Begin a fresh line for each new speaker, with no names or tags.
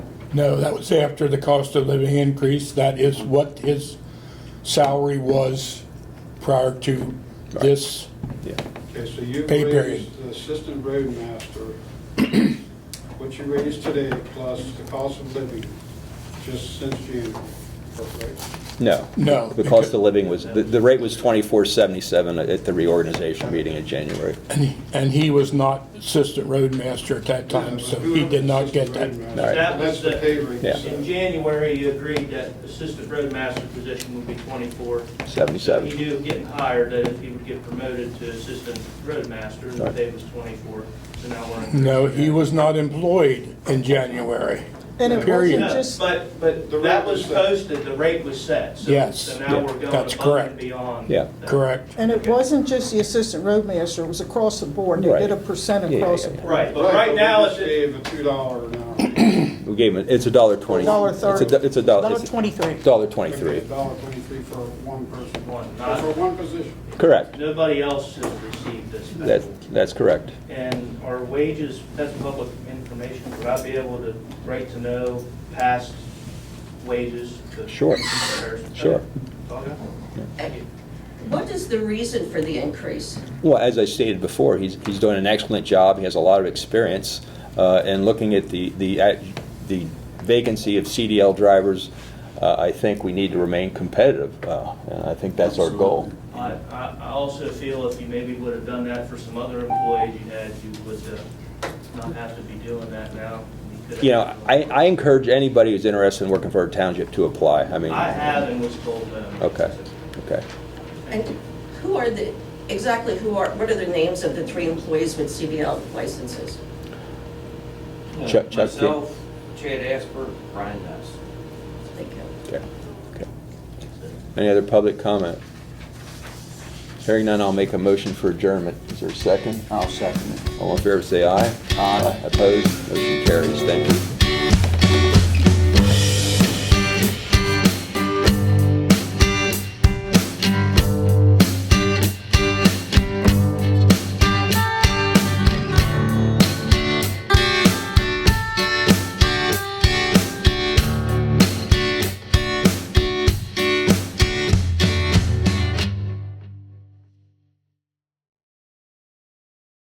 No, that was after the cost of living increase. That is what his salary was prior to this.
Yeah.
Okay, so you
Pay period.
raised the assistant roadmaster, what you raised today plus the cost of living, just since January, correct?
No.
No,
The cost
because-
of living was, the, the rate was twenty-four seventy-seven at the reorganization meeting in January.
And he was not assistant roadmaster at that time, so he did not get that.
All right.
That was the pay rate.
Yeah.
In January, you agreed that assistant roadmaster position would be 24. You
Seventy-seven.
knew getting hired that if he would get promoted to assistant roadmaster, the
Right.
pay was 24. So now we're.
No, he was not employed in January.
And it
Period.
wasn't
No,
just,
But, but
The rate
that was
was set.
posted, the rate was set. So-
Yes,
So
yeah,
now we're going
that's
above
correct.
and beyond.
Yeah.
that.
Correct.
and it wasn't just the assistant roadmaster, it was across the board. They
Right.
did a percent
Yeah, yeah,
across the
yeah.
board.
Right, but right now,
we
it's
just gave a two dollar an hour.
We gave him, it's a dollar twenty.
Dollar
It's a
thirty.
do- It's a dollar. it's a
twenty-three.
Dollar twenty-three.
Okay, Dollar twenty-three for one person.
One,
So
not-
For one position.
Correct.
nobody else has received this.
That, that's correct.
And our wages, that's public information, would I be able to write to know past wages? to-
Sure.
comparison?
Sure.
Okay. Thank you.
What is the reason for the increase?
Well, as I stated before, he's, he's doing an excellent job, he has a lot of experience, uh, and looking at the, the, at- the vacancy of CDL drivers, uh, I think we need to remain competitive, uh, and I think that's our goal.
I, I I also feel if you maybe would have done that for some other employees you had, you would uh, not have to be doing that now. could have-
You know, I, I encourage anybody who's interested in working for a township to apply, I mean.
I have and was told no.
Okay, okay.
And who are the, exactly who are, what are the names of the three employees with CDL licenses?
Chuck- Chuck, yeah.
Myself, Chad Asper, Brian Nuss.
Thank you.
Okay, okay. Any other public comment? Hearing none, I'll make a motion for adjournment. Is there a second?
I'll second it.
All in favor, say aye.
Aye.
Opposed? Motion carries. Thank you.